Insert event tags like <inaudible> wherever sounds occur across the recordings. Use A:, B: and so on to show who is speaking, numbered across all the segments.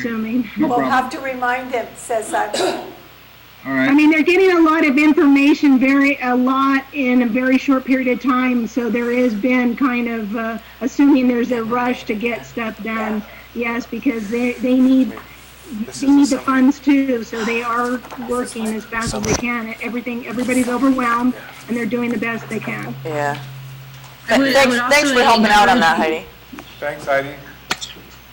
A: assuming.
B: No
C: We'll
B: problem.
C: have to remind him, says I.
B: All
A: I
B: right,
A: mean, they're getting a lot of information, very, a lot in a very short period of time, so there has been kind of, uh, assuming there's a rush to get stuff done, yes, because they, they need,
D: This
A: they need
D: is
A: the
D: the summer.
A: funds too, so they are working as fast as they can. Everything, everybody's overwhelmed, and they're doing the best they can.
E: Yeah.
F: I would- I
E: Thanks,
F: would also
E: thanks for helping out on that,
F: encourage-
E: Heidi.
D: Thanks, Heidi.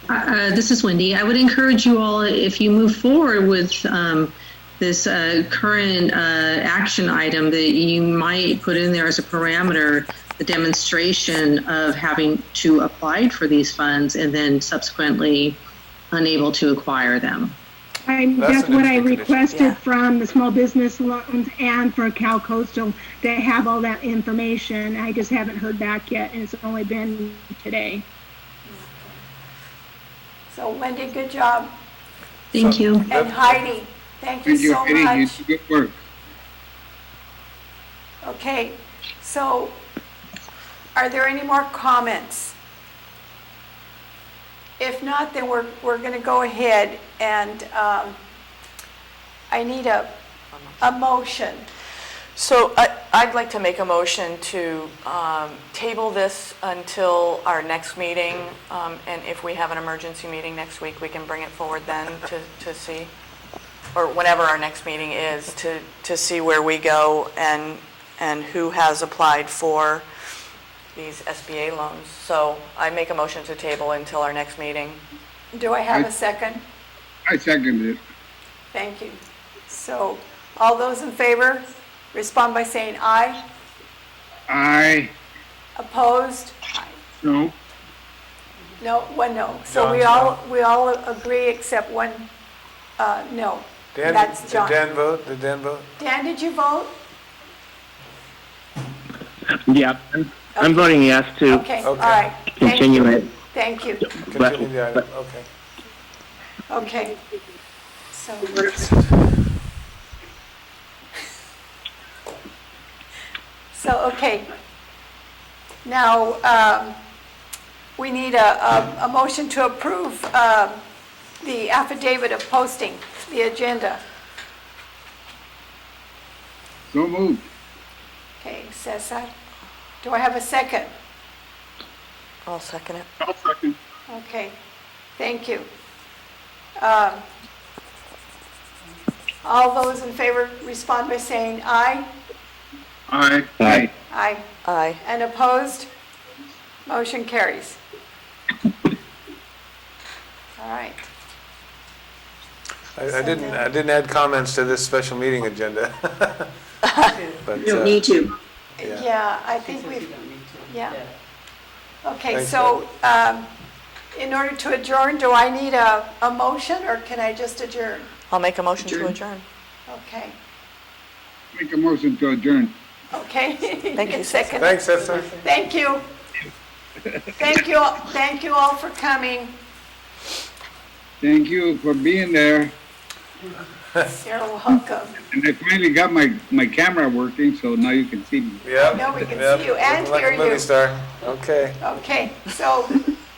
F: Uh, this is Wendy. I would encourage you all, if you move forward with um, this uh, current uh, action item, that you might put in there as a parameter the demonstration of having to apply for these funds and then subsequently unable to acquire them.
A: I,
D: That's
A: that's
D: an
A: what I
D: interesting condition.
A: requested
E: Yeah.
A: from the small business loans and for Cal Coastal that have all that information. I just haven't heard back yet, and it's only been today.
C: So Wendy, good job.
F: Thank
D: So-
F: you.
C: And
D: That's-
C: Heidi, thank you
B: thank you,
C: so
B: Heidi, you
C: much.
B: did good work.
C: Okay, so are there any more comments? If not, then we're, we're going to go ahead and um, I need a, a motion.
E: So I, I'd like to make a motion to um, table this until our next meeting. um, And if we have an emergency meeting next week, we can bring it forward then to, to see, or whenever our next meeting is, to, to see where we go and, and who has applied for these SBA loans. So I make a motion to table until our next meeting.
C: Do I have a second?
B: I seconded it.
C: Thank you. So all those in favor, respond by saying aye.
B: I,
C: Opposed?
B: no,
C: No, one no. So we
D: John's
C: all, we all agree except one, uh, no.
D: Dan,
C: That's
D: did
C: John.
D: Dan vote? Did Dan vote?
C: Dan, did you vote?
G: Yeah, I'm, I'm voting yes to
C: Okay, all
D: Okay.
C: right. Thank
G: continue
C: you.
G: it.
C: Thank you.
D: Continue the item, okay.
C: Okay. So, so, okay. Now, um, we need a, a, a motion to approve, um, the affidavit of posting, the agenda.
B: so moved.
C: Okay, Cesar, do I have a second?
E: I'll second it.
B: I'll second.
C: Okay, thank you. Um, All those in favor respond by saying aye.
B: I,
G: Aye.
C: Aye.
E: Aye.
C: And opposed? Motion carries. All right.
D: I, I didn't, I didn't add comments to this special meeting agenda. <laughs> But, uh,
F: to.
D: Yeah.
C: Yeah, I think
H: Since you
C: we've,
H: don't need to.
C: yeah. Okay,
D: Thanks,
C: so um, in order to adjourn, do I need a, a motion or can I just adjourn?
E: I'll make a motion to adjourn.
C: Okay,
B: make a motion to adjourn.
C: okay.
E: Thank
C: <laughs>
E: you,
C: It's
E: Cesar.
C: seconded.
D: Thanks, Esther.
C: Thank you. Thank you, all- thank you all for coming.
B: Thank you for being there,
C: You're welcome.
B: and I finally got my, my camera working, so now you can see me.
D: Yep.
C: Now we can
D: yep.
C: see you and
D: Looking like a
C: hear you.
D: movie star. Okay.
C: Okay, so, meeting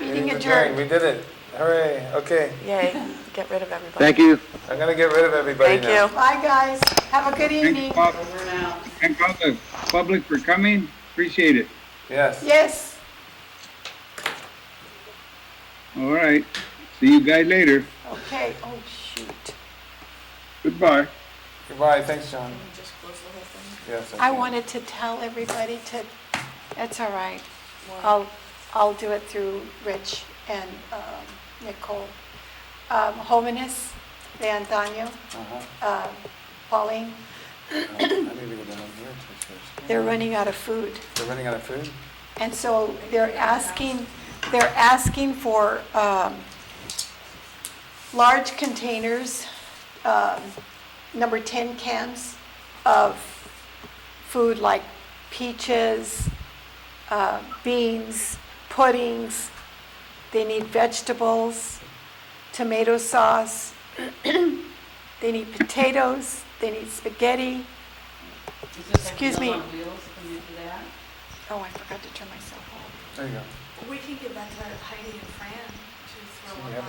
D: Meeting's
C: adjourned.
D: We did it. Hooray, okay.
E: Yay, get rid of everybody.
G: Thank you.
D: I'm gonna get rid of everybody
E: Thank
D: now.
E: you.
C: Bye, guys. Have a good evening.
B: Thank Bob,
H: Over and out.
B: thank all the public for coming, appreciate it.
D: Yes.
C: Yes,
B: All right, see you guys later,
C: okay, oh, shoot.
B: goodbye.
D: Goodbye, thanks, John. Yes.
C: I
D: can.
C: wanted to tell everybody to, that's all right. I'll, I'll do it through Rich and um, Nicole. Um, Homeness, De Antonio,
D: Uh-huh.
C: um, Pauline,
D: I need to go down here to first.
C: they're running out of food.
D: They're running out of food?
C: And so they're asking, they're asking for um, large containers, um, number 10 cans of food like peaches, uh, beans, puddings. They need vegetables, tomato sauce. <clears throat> They need potatoes, they need
H: Does
C: spaghetti.
H: this have to
C: Excuse
H: go
C: me.
H: on wheels when you do that?
C: Oh, I forgot to turn myself off.
D: There you go.
I: We can give that to Heidi and Fran to throw